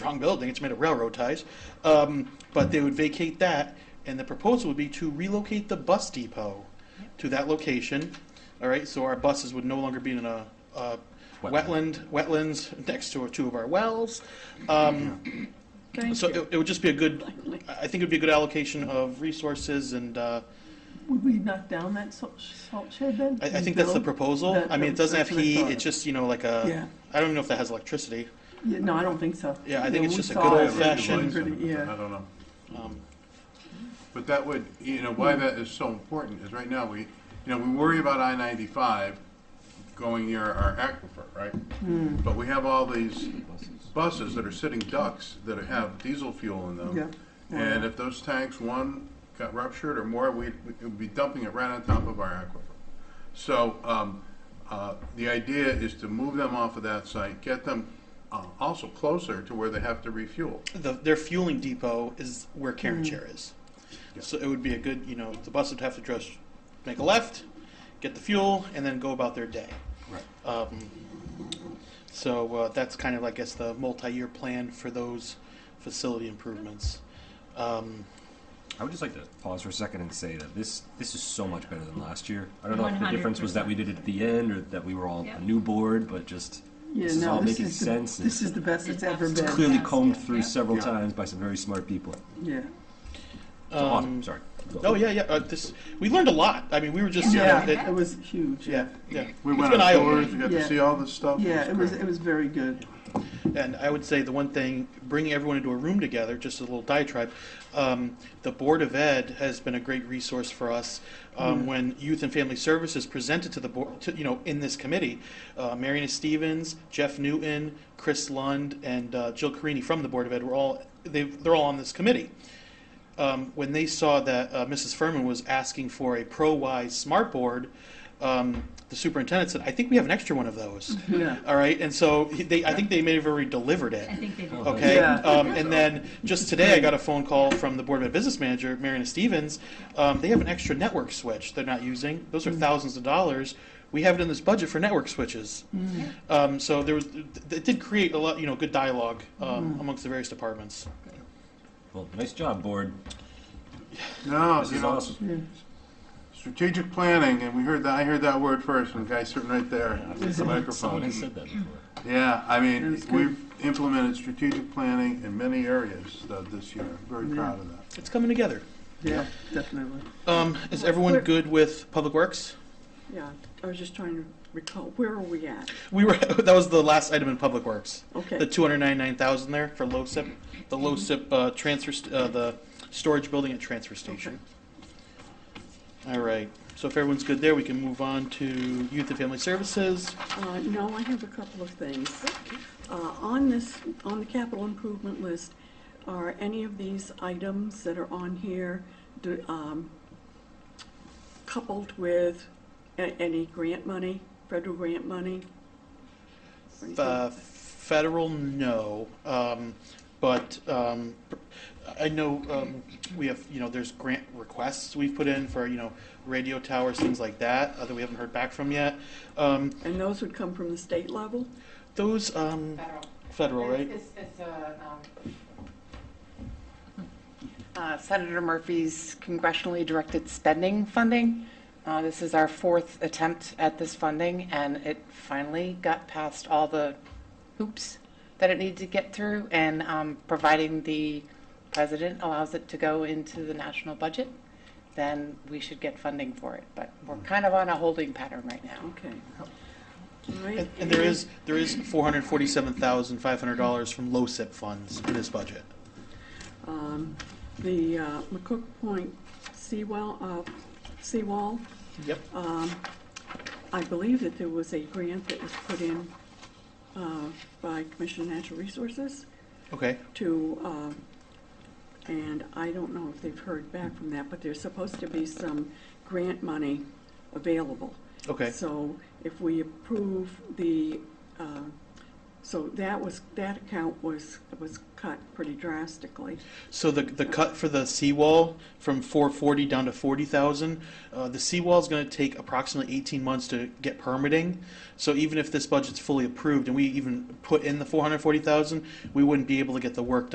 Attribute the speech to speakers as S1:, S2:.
S1: strong building, it's made of railroad ties. Um, But they would vacate that, and the proposal would be to relocate the bus depot to that location. All right, so our buses would no longer be in a uh, wetland,
S2: Wetland.
S1: wetlands next to two of our wells. Um, So it it would just be a good, I I think it would be a good allocation of resources and, uh,
S3: Would we knock down that salt salt shed then?
S1: I, I think that's the
S3: Bill?
S1: proposal.
S3: That-
S1: I mean, it doesn't have
S3: that's what I
S1: heat,
S3: thought.
S1: it's just, you know, like a,
S3: Yeah.
S1: I don't even know if that has electricity.
S3: Yeah, no, I don't think so.
S1: Yeah, I think it's
S3: we
S1: just a
S3: saw
S1: good
S3: it.
S1: old fashioned-
S3: Pretty-
S4: I
S3: Yeah,
S4: don't know.
S1: Um,
S4: But that would, you know, why that is so important is right now, we, you know, we worry about I-95 going near our aquifer, right? But we have all these buses that are sitting ducks that have diesel fuel in
S3: Yeah.
S4: them. And if those tanks, one got ruptured or more, we'd, we'd be dumping it right on top of our aquifer. So, um, uh, the idea is to move them off of that site, get them uh, also closer to where they have to refuel.
S1: the, their fueling depot is where Karen Chair is. So it would be a good, you know, the bus would have to dress, make a left, get the fuel, and then go about their day.
S4: Right.
S1: Um, so uh, that's kind of, I guess, the multi-year plan for those facility improvements. Um,
S2: I would just like to pause for a second and say that this this is so much better than last year. I don't know if the difference was that we did it at the end or that we were all
S5: Yeah.
S2: a new board, but just
S3: yeah,
S2: this is
S3: no,
S2: all
S3: this
S2: making
S3: is the,
S2: sense.
S3: this is the best it's ever
S5: It's
S3: been.
S5: clear-
S2: clearly
S5: Yeah.
S2: combed
S5: Yeah.
S2: through several
S4: Yeah.
S2: times by some very smart people.
S3: Yeah.
S2: So awesome.
S1: um,
S2: Sorry.
S1: Oh yeah, yeah. Uh, this we learned a lot. I mean, we were just
S3: Yeah,
S1: you know,
S3: it
S1: it,
S3: was huge.
S1: yeah, yeah.
S4: We
S1: It's
S4: went
S1: been
S4: on
S1: eye-opening.
S4: tours, we got
S3: Yeah.
S4: to see all this stuff.
S3: Yeah, it was,
S4: great.
S3: it was very good.
S1: And I would say the one thing, bringing everyone into a room together, just a little diatribe, um, the Board of Ed has been a great resource for us. Um, When Youth and Family Services presented to the board, to, you know, in this committee, uh, Mariana Stevens, Jeff Newton, Chris Lund, and uh, Jill Carini from the Board of Ed were all, they, they're all on this committee. Um, when they saw that uh, Mrs. Furman was asking for a pro-wise smart board, um, the superintendent said, I think we have an extra one of those.
S3: Yeah.
S1: All right, and so he- they, I think they may have already delivered it.
S5: I think they did.
S1: Okay,
S3: Yeah.
S1: um, and then just today, I got a phone call from the Board of Ed Business Manager, Mariana Stevens. Um, they have an extra network switch they're not using. Those are thousands of dollars. We have it in this budget for network switches. Um, so there was, th- it did create a lot, you know, good dialogue um, amongst the various departments.
S2: Well, nice job, board.
S4: No,
S2: This
S4: you
S2: is
S4: know,
S2: awesome.
S4: strategic planning, and we heard that, I heard that word first, and the guy sitting right there with the
S2: Someone
S4: microphone.
S2: has said that before.
S4: Yeah, I mean,
S3: That's good.
S4: we've implemented strategic planning in many areas uh, this year. Very proud of that.
S1: It's coming together.
S3: Yeah, definitely.
S1: Um, is everyone
S6: Where-
S1: good with Public Works?
S6: Yeah, I was just trying to recall, where are we at?
S1: We were, that was the last item in Public Works. The
S6: Okay,
S1: two hundred ninety-nine thousand there for LoSiP, the LoSiP uh, transfer, st- uh, the storage building and transfer station. All right, so if everyone's good there, we can move on to Youth and Family Services.
S6: uh, no, I have a couple of things. Uh, on this, on the capital improvement list, are any of these items that are on here, do, um, coupled with a- any grant money, federal grant money? Or anything?
S1: Uh, Federal, no, um, but, um, I know, um, we have, you know, there's grant requests we've put in for, you know, radio towers, things like that, uh, that we haven't heard back from yet. Um,
S6: And those would come from the state level?
S1: those, um,
S7: Federal.
S1: federal, right?
S7: It's, it's- it's, uh, um, uh, Senator Murphy's congressionally directed spending funding. Uh, This is our fourth attempt at this funding, and it finally got past all the hoops that it needed to get through, and um, providing the president allows it to go into the national budget, then we should get funding for it. But we're kind of on a holding pattern right now.
S6: Okay. All right,
S1: And, and there is, there is four hundred forty-seven thousand five hundred dollars from LoSiP funds in this budget.
S6: um, The uh, McCook Point seawall, uh, seawall,
S1: Yep.
S6: Um, I believe that there was a grant that was put in uh, by Commission on Natural Resources
S1: Okay,
S6: to, um, and I don't know if they've heard back from that, but there's supposed to be some grant money available.
S1: okay.
S6: So if we approve the uh, So that was, that account was, was cut pretty drastically.
S1: So the, the cut for the seawall from 440 down to 40,000, uh, the seawall is going to take approximately 18 months to get permitting. So even if this budget's fully approved and we even put in the 440,000, we wouldn't be able to get the work done.